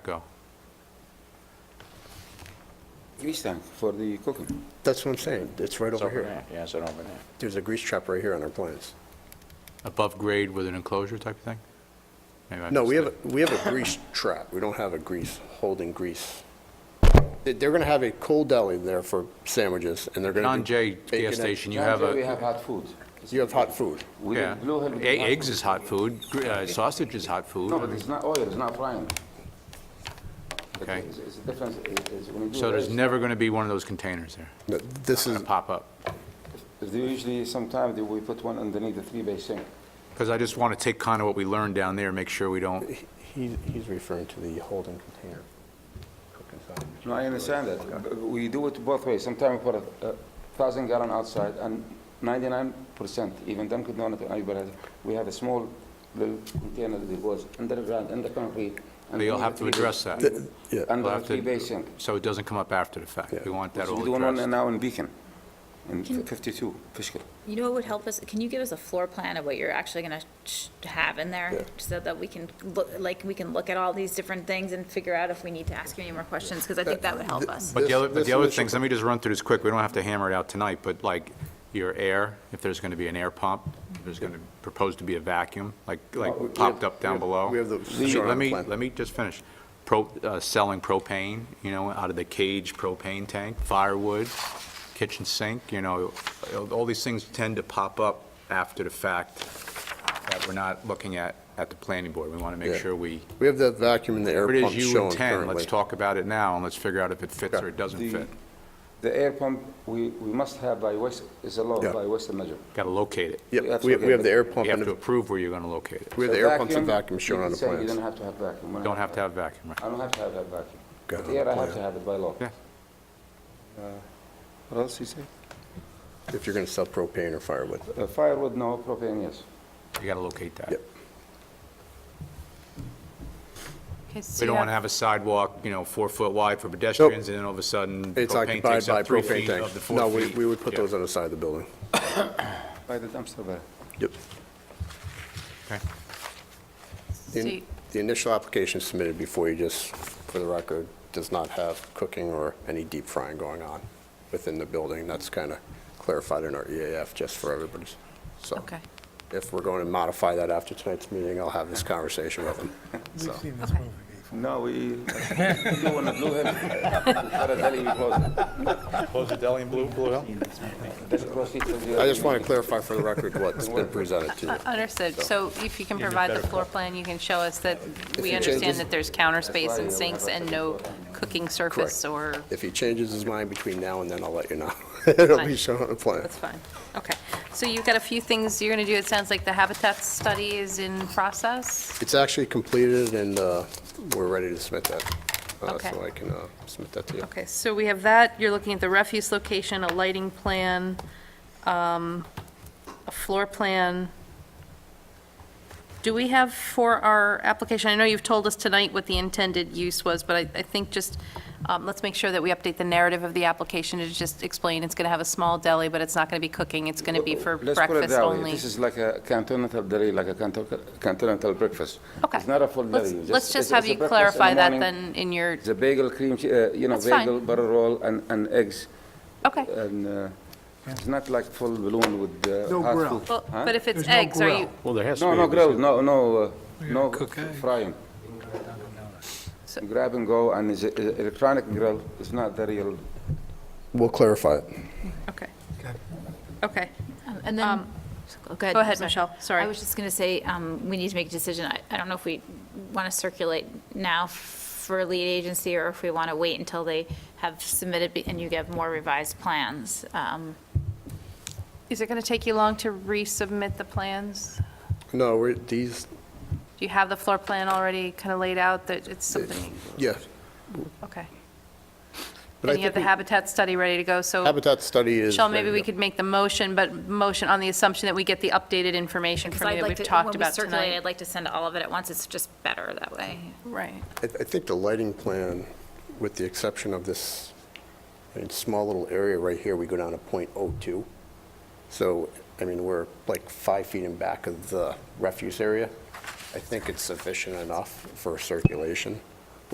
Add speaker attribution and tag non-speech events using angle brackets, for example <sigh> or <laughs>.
Speaker 1: Go.
Speaker 2: Grease tank for the cooking.
Speaker 3: That's what I'm saying, it's right over here.
Speaker 2: Yeah, it's an over there.
Speaker 3: There's a grease trap right here on our plans.
Speaker 1: Above grade with an enclosure type of thing? Maybe I
Speaker 3: No, we have,
Speaker 1: missed
Speaker 3: a we have a grease trap, we don't have a grease, holding grease. They- They're gonna have a cold deli there for sandwiches, and they're
Speaker 1: it.
Speaker 3: gonna.
Speaker 1: John
Speaker 3: be
Speaker 1: Jay
Speaker 3: baking
Speaker 1: gas
Speaker 3: it.
Speaker 1: station, you
Speaker 2: Down
Speaker 1: have
Speaker 2: there We have
Speaker 1: a,
Speaker 2: hot food.
Speaker 3: You have hot food.
Speaker 2: We
Speaker 1: yeah.
Speaker 2: did blue hell with
Speaker 1: E-
Speaker 2: hot
Speaker 1: Eggs
Speaker 2: food.
Speaker 1: is hot food, gr- uh, sausage is hot food.
Speaker 2: No, but it's not oil, it's not frying. But
Speaker 1: Okay.
Speaker 2: It's it's a difference, it- it's when you do.
Speaker 1: So there's
Speaker 2: rice,
Speaker 1: never going to be one of those containers there,
Speaker 3: No, This is,
Speaker 1: that pop up?
Speaker 2: They usually, sometimes they- we put one underneath the three-bay sink.
Speaker 1: Because I just want to take kind of what we learned down there, make sure we don't,
Speaker 3: he- he's referring to the holding container. Cooking sandwich.
Speaker 2: No, I understand that. but We do it both ways. Sometimes we put a- a thousand gallon outside and ninety-nine percent, even Dunkin' Donuts, everybody has- we have a small little container that goes underground, in the concrete.
Speaker 1: But you'll
Speaker 2: underneath
Speaker 1: have
Speaker 2: the
Speaker 1: to
Speaker 2: three-bay-
Speaker 1: address that.
Speaker 3: Th- yeah.
Speaker 1: We'll
Speaker 2: Under the
Speaker 1: have to-
Speaker 2: three-bay sink.
Speaker 1: so it doesn't come up after the fact. We want that
Speaker 2: We're
Speaker 1: all
Speaker 2: doing one
Speaker 1: addressed.
Speaker 2: now in Beacon, in
Speaker 4: Can-
Speaker 2: 52, Fishkill.
Speaker 4: You know what would help us, can you give us a floor plan of what you're actually gonna sh- have in
Speaker 3: Yeah.
Speaker 4: there? So that we can, look like, we can look at all these different things and figure out if we need to ask you any more questions, because I think that would help us.
Speaker 1: But the
Speaker 3: This-
Speaker 1: other, but
Speaker 3: this
Speaker 1: the other
Speaker 3: initial
Speaker 1: things, let me just run through this quick, we don't have to hammer it out tonight, but like, your air, if there's going to be an air pump, if there's going to, proposed to be a vacuum, like, like popped up down below.
Speaker 3: we have the-
Speaker 1: Let me-
Speaker 3: shown on
Speaker 1: Let
Speaker 3: the
Speaker 1: me,
Speaker 3: plan.
Speaker 1: let me just finish. Pro, uh, selling propane, you know, out of the cage propane tank, firewood, kitchen sink, you know, all these things tend to pop up after the fact that we're not looking at, at the planning board. We want to
Speaker 3: Yeah.
Speaker 1: make sure we,
Speaker 3: We have that vacuum in the air
Speaker 1: what it
Speaker 3: pump
Speaker 1: is you
Speaker 3: shown
Speaker 1: intend, let's
Speaker 3: currently.
Speaker 1: talk about it now, and let's figure out if it fits
Speaker 3: Okay.
Speaker 1: or it doesn't
Speaker 2: The-
Speaker 1: fit.
Speaker 2: The air pump, we, we must have by West, is a law
Speaker 3: Yeah.
Speaker 2: by Western Measure.
Speaker 1: Got to locate it.
Speaker 3: Yep, we have we have the air pump,
Speaker 1: You have
Speaker 3: and
Speaker 1: to
Speaker 3: the-
Speaker 1: approve where you're going to locate it.
Speaker 3: we have the air pumps and vacuum shown
Speaker 2: you
Speaker 3: on the
Speaker 2: can say You
Speaker 3: plans.
Speaker 2: don't have to have vacuum. We
Speaker 1: Don't have to have vacuum, right?
Speaker 2: I don't have to have that vacuum.
Speaker 3: Got it
Speaker 2: But
Speaker 3: on the
Speaker 2: air, I have
Speaker 3: plan.
Speaker 2: to have it by law.
Speaker 1: Yeah.
Speaker 2: Uh, What else you say?
Speaker 3: If you're gonna sell propane or firewood.
Speaker 2: Uh, Firewood, no, propane, yes.
Speaker 1: You got to locate that.
Speaker 3: Yep.
Speaker 1: We don't want to have a sidewalk, you know, four foot wide for pedestrians, and then all of a sudden,
Speaker 3: It's
Speaker 1: propane
Speaker 3: occupied
Speaker 1: takes
Speaker 3: by
Speaker 1: up three
Speaker 3: propane
Speaker 1: feet of the
Speaker 3: tanks.
Speaker 1: four feet.
Speaker 3: No, we, we would put
Speaker 1: Yeah.
Speaker 3: those on the side of the building.
Speaker 2: By the dumpster there.
Speaker 3: Yep.
Speaker 1: Okay.
Speaker 3: The the initial application submitted before you just, for the record, does not have cooking or any deep frying going on within the building. That's kind of clarified in our EAF, just for everybody's,
Speaker 1: Oh.
Speaker 3: so.
Speaker 4: Okay.
Speaker 3: If we're going to modify that after tonight's meeting, I'll have this conversation with them.
Speaker 5: <laughs> We've seen this
Speaker 4: Okay.
Speaker 5: movie before.
Speaker 2: No, we, we do want to blue hill. <laughs> Philadelphia, we close it.
Speaker 1: Close the deli and Blue, Blue Hill?
Speaker 2: That's across the street.
Speaker 3: I just want to clarify for the record what's been presented
Speaker 6: Uh,
Speaker 3: to you.
Speaker 6: Understood. So if you can provide the floor plan, you can show us that we
Speaker 3: you change-
Speaker 6: understand that there's counter
Speaker 2: why
Speaker 6: space and
Speaker 2: you have
Speaker 6: sinks
Speaker 2: a
Speaker 6: and no
Speaker 2: separate floor plan.
Speaker 6: cooking surface or,
Speaker 3: If he changes his mind between now and then, I'll let you know. <laughs> It'll be
Speaker 6: Fine.
Speaker 3: shown on the plan.
Speaker 6: that's fine. Okay. So you've got a few things you're going to do. It sounds like the habitat study is in process.
Speaker 3: It's actually completed, and uh, we're ready to submit that. Uh,
Speaker 6: Okay.
Speaker 3: So I can uh, submit that to you.
Speaker 6: Okay, so we have that. You're looking at the refuse location, a lighting plan, um, a floor plan. Do we have for our application, I know you've told us tonight what the intended use was, but I, I think just, um, let's make sure that we update the narrative of the application to just explain it's going to have a small deli, but it's not going to be cooking, it's going to be for
Speaker 2: Let's put it
Speaker 6: breakfast
Speaker 2: that way.
Speaker 6: only.
Speaker 2: This is like a continental deli, like a conto- continental breakfast.
Speaker 6: Okay.
Speaker 2: It's not a full
Speaker 6: Let's-
Speaker 2: deli.
Speaker 6: Let's
Speaker 2: it's-
Speaker 6: just have
Speaker 2: it's a
Speaker 6: you
Speaker 2: breakfast in the
Speaker 6: clarify that
Speaker 2: morning.
Speaker 6: then in your,
Speaker 2: It's a bagel, cream, che- uh, you know,
Speaker 6: That's fine.
Speaker 2: bagel, butter roll, and, and eggs,
Speaker 6: okay.
Speaker 2: and uh, it's not like full balloon with uh,
Speaker 5: No
Speaker 2: hot
Speaker 5: grill.
Speaker 2: food.
Speaker 6: Well,
Speaker 2: Huh?
Speaker 6: But if it's
Speaker 5: There's no
Speaker 6: eggs, are
Speaker 5: grill.
Speaker 6: you,
Speaker 1: Well, there has
Speaker 2: No, no grill, no, no, uh, no
Speaker 5: cook eggs.
Speaker 2: frying. Grab and go, and it's a- a- electronic grill, it's not the real.
Speaker 3: We'll clarify it.
Speaker 6: okay. Okay.
Speaker 4: Um, And then, go ahead.
Speaker 6: Go ahead,
Speaker 4: sorry.
Speaker 6: Michelle, sorry.
Speaker 4: I was just going to say, um, we need to make a decision. I- I don't know if we want to circulate now for lead agency or if we want to wait until they have submitted be- and you get more revised plans. Um,
Speaker 6: Is it going to take you long to resubmit the plans?
Speaker 3: No, we're, these,
Speaker 6: Do you have the floor plan already kind of laid out that it's something,
Speaker 3: yeah.
Speaker 6: okay.
Speaker 3: But I
Speaker 6: And you
Speaker 3: think
Speaker 6: have the
Speaker 3: we-
Speaker 6: habitat study ready to go, so.
Speaker 3: Habitat study is.
Speaker 6: Michelle, maybe
Speaker 3: ready
Speaker 6: we
Speaker 3: to go.
Speaker 6: could make the motion, but motion on the assumption that we get the updated information
Speaker 4: Because
Speaker 6: from
Speaker 4: I'd
Speaker 6: you that
Speaker 4: like
Speaker 6: we've
Speaker 4: to,
Speaker 6: talked
Speaker 4: when we
Speaker 6: about
Speaker 4: circulate, I'd
Speaker 6: tonight.
Speaker 4: like to send all of it at once. It's just better that way.
Speaker 6: Right.
Speaker 3: I, I think the lighting plan, with the exception of this, I mean, small little area right here, we go down to .02. So, I mean, we're like five feet in back of the refuse area. I think it's sufficient enough for circulation.